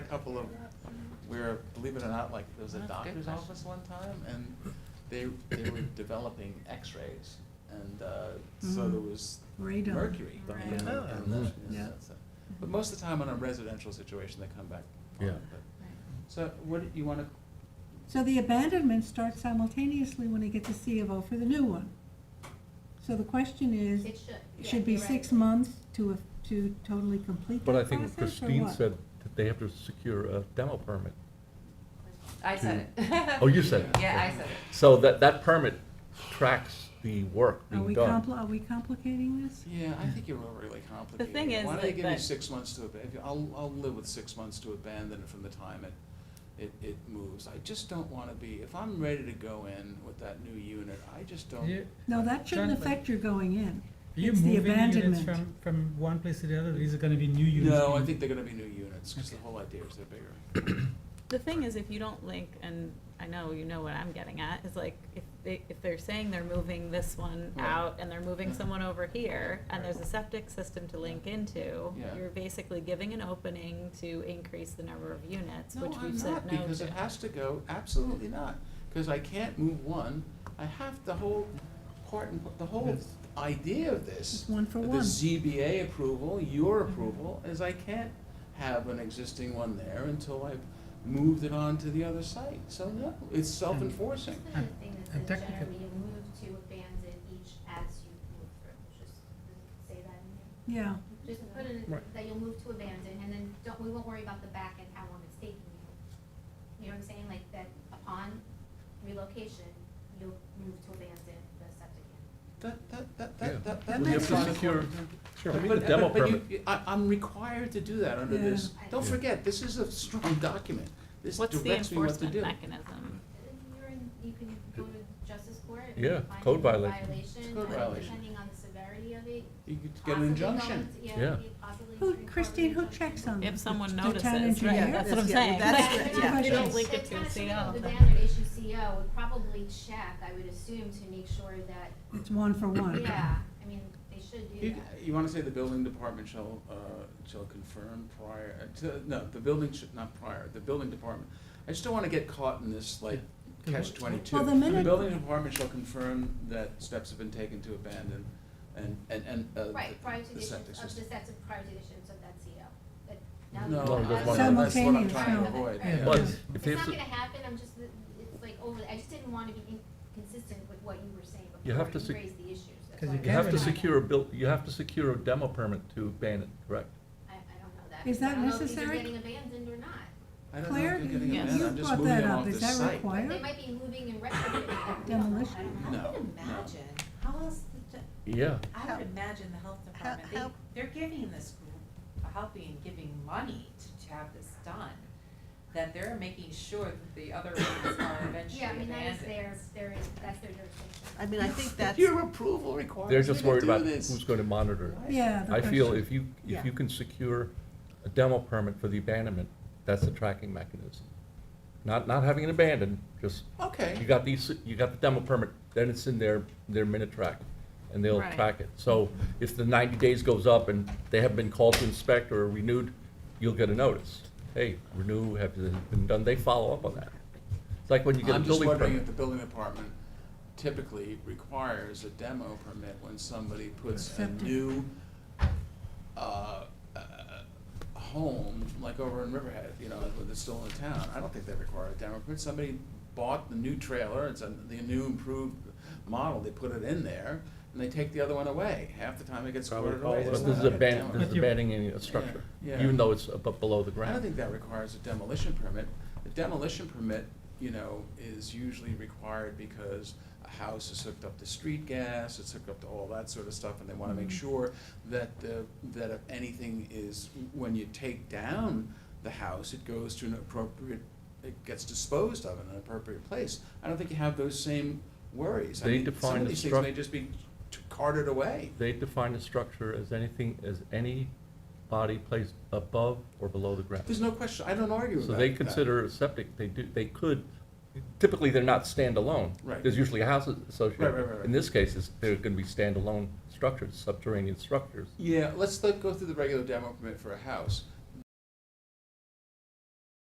couple of, where, believe it or not, like, there was a That's a good doctor's question. office one time, and they, they were developing x-rays, and, uh, so there Mm. was Radon. mercury. Right. in the- Oh. in the- Mhm. yeah, Yeah. so- But most of the time on a residential situation, they come back fine, Yeah. but, Right. so what, you wanna, So the abandonments start simultaneously when they get the C of O for the new one. So the question is, It should. yeah, should be you're right. six months to, to totally complete But I that think process, what or Christine what? said, that they have to secure a demo permit. I said it. Oh, you said it. Yeah, I said it. So that, that permit tracks the work Are being we done. compli, are we complicating this? yeah, I think you're overly complicated. thing is Why don't that- they give you that- six months to abandon, I'll, I'll live with six months to abandon it from the time it, it, it moves. I just don't wanna be, if I'm ready to go in with that new unit, I just Yeah, don't, No, that shouldn't Exactly. affect your going in. Are you It's the moving units abandonment. from, from one place to the other, these are gonna be new units? no, I being- think they're gonna be new units, cause the Okay. whole idea is they're bigger. The thing is, if you don't link, and I know you know what I'm getting at, is like, if they, if they're saying they're moving this one Right. out and they're moving Mhm. someone over here, and there's a Right. septic system to link into, Yeah. you're basically giving an opening to increase the number of units, No, which I'm we've said not, no to. because it has to go, absolutely not, because I can't move one, I have the whole part and, the whole Yes. idea of this. It's one for The one. ZBA approval, your approval, is I can't have an existing one there until I've moved it on to the other site, so no, it's self-enforcing. Just another thing that And says technical- generally move to abandon each as you move through, just say that in there. Yeah, Just put in, Right. that you'll move to abandon, and then don't, we won't worry about the back and how long it's taking you. You know what I'm saying, like that upon relocation, you'll move to abandon the septic unit. That, that, that, Yeah. that, that, Well, that you makes have to sense. secure- Sure, I mean, the But- demo but- but you- permit. you- I, I'm required to do that under Yeah. this, don't Yeah. forget, this is a strong document, this What's the directs me what to enforcement do. mechanism? Uh, You're in, you can go to justice court. if Yeah, you find code a violation. It's Violation, code uh, violation. depending on the severity of it. You could get an possibly going injunction. to- Yeah. you possibly Who, to Christine, who require an checks on If this? someone The town notices, right, engineer? that's what I'm Yeah, saying. that's But the- if yeah. they're You not- don't link it if to they're a not CO, submitting The then- banner issue CO would probably check, I would assume, to make sure that, It's one for Oh, one. yeah, I mean, they should do You, that. you wanna say the building department shall, uh, shall confirm prior, uh, to, no, the building should, not prior, the building department. I just don't wanna get caught in this like Yeah. catch twenty-two. Well, the minute- building department shall confirm that steps have been taken to abandon and, and, and, uh, the- Right, prior to the the issuance septic of, system. the sets of prior to the issuance of that CO. But now No, No, that's that- that's one what of I'm trying the- to Simultaneous, no. avoid. Yeah. But Yeah. if they It's have not to, gonna happen, I'm just, it's like over, I just didn't wanna be inconsistent with what you were saying You before have to you sec- raised the issues. That's 'Cause why you I you have to was trying secure a bill, you have to secure a demo permit to abandon, correct? I, I don't know that. Is that I don't know if these are necessary? Getting abandoned or not. I don't know if Claire, they're getting Yes. abandoned, you I'm just brought moving that them up, off the is that site. But They required? might be moving and retrofitting. that. We don't know. Demolition? I don't know. No, I would no. imagine, how else, the t- Yeah. I would imagine the health department, they, how- they're giving this group, helping and giving money to, to have this done. That they're making sure that the other ones are eventually Yeah, I mean, abandoned. that is their, their, that's their jurisdiction. I mean, I think If Your approval They're requires me just to worried do about this. who's gonna monitor it. Yeah, the I feel question. if you, if Yeah. you can secure a demo permit for the abandonment, that's the tracking mechanism. Not, not having it abandoned, just, you Okay, got these, you got the demo permit, then it's in their, their minute track, and they'll Right. track it. So if the ninety days goes up and they have been called to inspect or renewed, you'll get a notice. Hey, renew, have you been done, they follow up on that. It's like when you get a I'm just building permit. wondering if the building department typically requires a demo permit when somebody puts a Septic. new, uh, uh, home, like over in Riverhead, you know, that's still in town, I don't think they require a demo permit, somebody bought the new trailer, it's a, the new improved model, they put it in there, and they take the other one away, half the time it gets Probably squirted away. But It's This is not a aban- demo. this is But you- abandoning a structure, Yeah. even though it's above, below the I don't ground. think that requires a demolition permit. The demolition permit, you know, is usually required because a house is hooked up to street gas, it's hooked up to all that sort of stuff, and they wanna Mm-hmm. make sure that, the that if anything is, when you take down the house, it goes to an appropriate, it gets disposed of in an appropriate place. I don't think you have those same worries. I They mean, define Some the of these things may struct- just be t- carted away. They define a structure as anything, as any body placed above or below the ground. There's no question, I don't argue with So that. they that. consider a septic, they do, they could, typically, they're not standalone. Right. There's usually a house Right, right, right, associated. right. In this case, it's, they're gonna be standalone structures, subterranean structures. Yeah, let's let, go through the regular demo permit for a house.